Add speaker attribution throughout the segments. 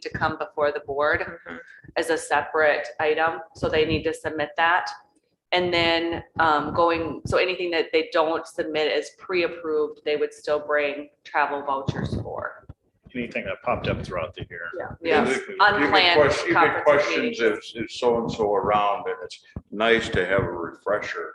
Speaker 1: to come before the board
Speaker 2: Mm-hmm.
Speaker 1: as a separate item, so they need to submit that. And then um, going, so anything that they don't submit as pre-approved, they would still bring travel vouchers for.
Speaker 3: anything that popped up throughout the year.
Speaker 1: Yeah,
Speaker 4: You get
Speaker 1: unplanned
Speaker 4: quest- You get
Speaker 1: conference
Speaker 4: questions
Speaker 1: meetings.
Speaker 4: if, if so-and-so around, and it's nice to have a refresher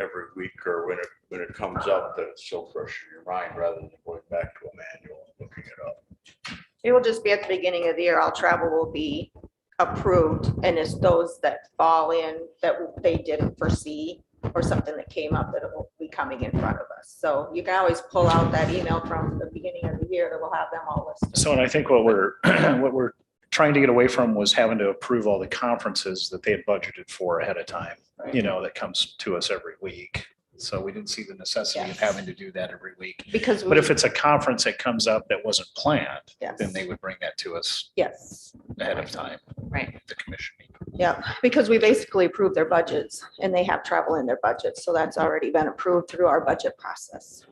Speaker 4: every week or when it, when it comes up, that it's so fresh in your mind, rather than going back to a manual and looking it up.
Speaker 5: It will just be at the beginning of the year, all travel will be approved, and it's those that fall in that they didn't foresee or something that came up that will be coming in front of us. So you can always pull out that email from the beginning of the year that will have them all listed.
Speaker 3: So, and I think what we're, what we're trying to get away from was having to approve all the conferences that they had budgeted for ahead of time, you know, that comes to us every week. So we didn't see the necessity of
Speaker 5: Yes.
Speaker 3: having to do that every week.
Speaker 5: Because.
Speaker 3: But if
Speaker 5: we-
Speaker 3: it's a conference that comes up that wasn't planned, then
Speaker 5: Yes,
Speaker 3: they would bring that to us
Speaker 5: yes,
Speaker 3: ahead of time,
Speaker 1: Right,
Speaker 3: the commission. meeting.
Speaker 5: yeah, because we basically approve their budgets, and they have travel in their budget, so that's already been approved through our budget process.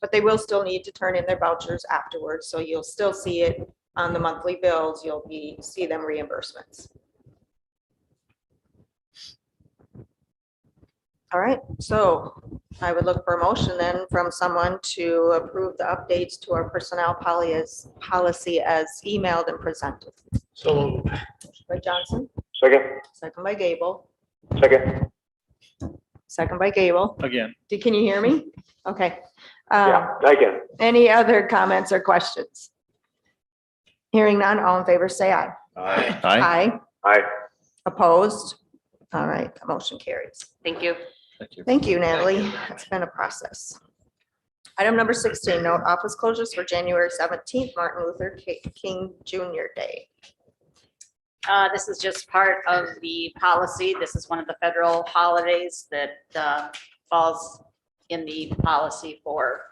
Speaker 5: But they will still need to turn in their vouchers afterwards, so you'll still see it on the monthly bills, you'll be, see them reimbursements. All right, so I would look for a motion then from someone to approve the updates to our personnel poly as, policy as emailed and presented.
Speaker 6: So,
Speaker 5: By Johnson,
Speaker 6: second,
Speaker 5: second by Gable,
Speaker 6: second,
Speaker 5: second by Gable.
Speaker 3: Again,
Speaker 5: Do- Can you hear me? Okay. Um,
Speaker 6: yeah, I can.
Speaker 5: Any other comments or questions? Hearing none, all in favor, say aye.
Speaker 4: I,
Speaker 3: aye.
Speaker 5: Aye.
Speaker 6: Aye.
Speaker 5: Opposed? All right, the motion carries.
Speaker 1: thank you.
Speaker 3: Thank you.
Speaker 5: Thank you, Natalie. It's been a process. Item number sixteen, note office closures for January seventeenth, Martin Luther Ki- King Junior Day.
Speaker 2: Uh, this is just part of the policy. This is one of the federal holidays that, uh, falls in the policy for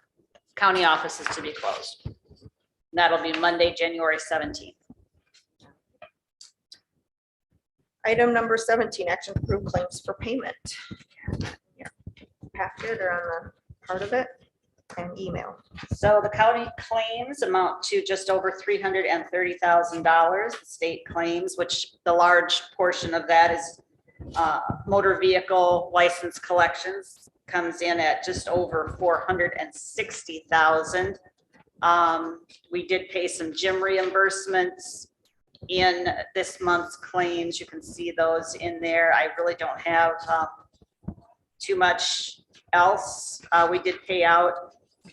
Speaker 2: county offices to be closed. And That'll be Monday, January seventeenth.
Speaker 5: Item number seventeen, action to approve claims for payment. Yeah, Packet or on the part of it and email.
Speaker 2: So the county claims amount to just over three hundred and thirty thousand dollars, the state claims, which the large portion of that is uh, motor vehicle license collections comes in at just over four hundred and sixty thousand. Um, we did pay some gym reimbursements in this month's claims. You can see those in there. I really don't have uh, too much else. Uh, we did pay out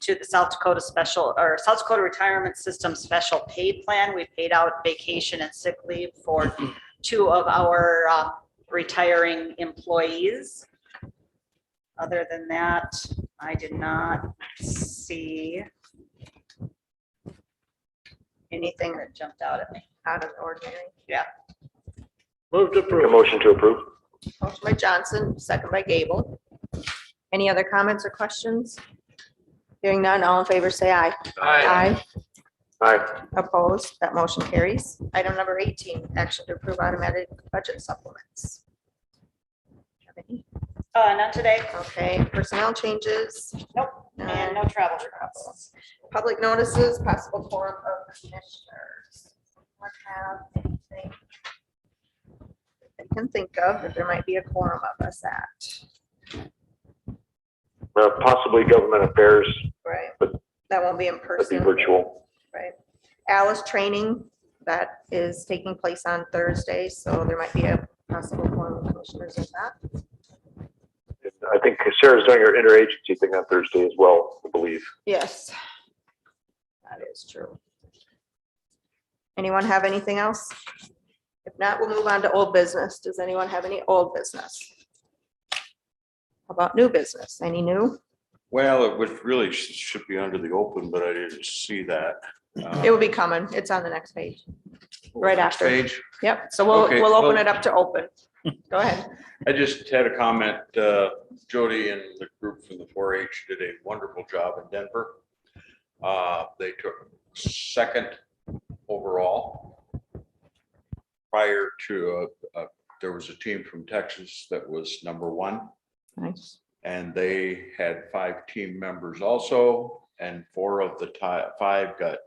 Speaker 2: to the South Dakota Special, or South Dakota Retirement System Special Pay Plan. We paid out vacation and sick leave for two of our uh, retiring employees. Other than that, I did not see anything that jumped out at me.
Speaker 5: out of the ordinary.
Speaker 6: Move to approve. motion to approve.
Speaker 5: Motion by Johnson, second by Gable. Any other comments or questions? Hearing none, all in favor, say aye. Aye.
Speaker 6: Aye.
Speaker 5: Opposed, that motion carries. Item number eighteen, action to approve automatic budget supplements. Have any?
Speaker 2: Uh, not today,
Speaker 5: Okay, personnel changes,
Speaker 2: nope, and no travel requests.
Speaker 5: public notices, possible forum of commissioners. What have anything I can think of that there might be a quorum of us at,
Speaker 7: Uh, possibly government affairs,
Speaker 5: right?
Speaker 7: But-
Speaker 5: That won't be in
Speaker 7: that'd be
Speaker 5: person.
Speaker 7: virtual.
Speaker 5: Right. Alice training, that is taking place on Thursday, so there might be a possible form of commissioners of that.
Speaker 7: I think Sarah's doing her interagency thing on Thursday as well, I believe.
Speaker 5: Yes. That is true. Anyone have anything else? If not, we'll move on to old business. Does anyone have any old business? How About new business, any new?
Speaker 4: well, it was really, sh- should be under the open, but I didn't see that. Uh,
Speaker 5: It will be coming. It's on the next page. right
Speaker 4: next
Speaker 5: after.
Speaker 4: Page.
Speaker 5: Yep, so we'll,
Speaker 4: Okay,
Speaker 5: we'll open
Speaker 4: well-
Speaker 5: it up to open. Go ahead.
Speaker 4: I just had a comment, uh, Jody and the group from the four H did a wonderful job in Denver. Uh, They took second overall. Prior to, uh, uh, there was a team from Texas that was number one.
Speaker 5: Nice.
Speaker 4: And they had five team members also, and four of the ti- five got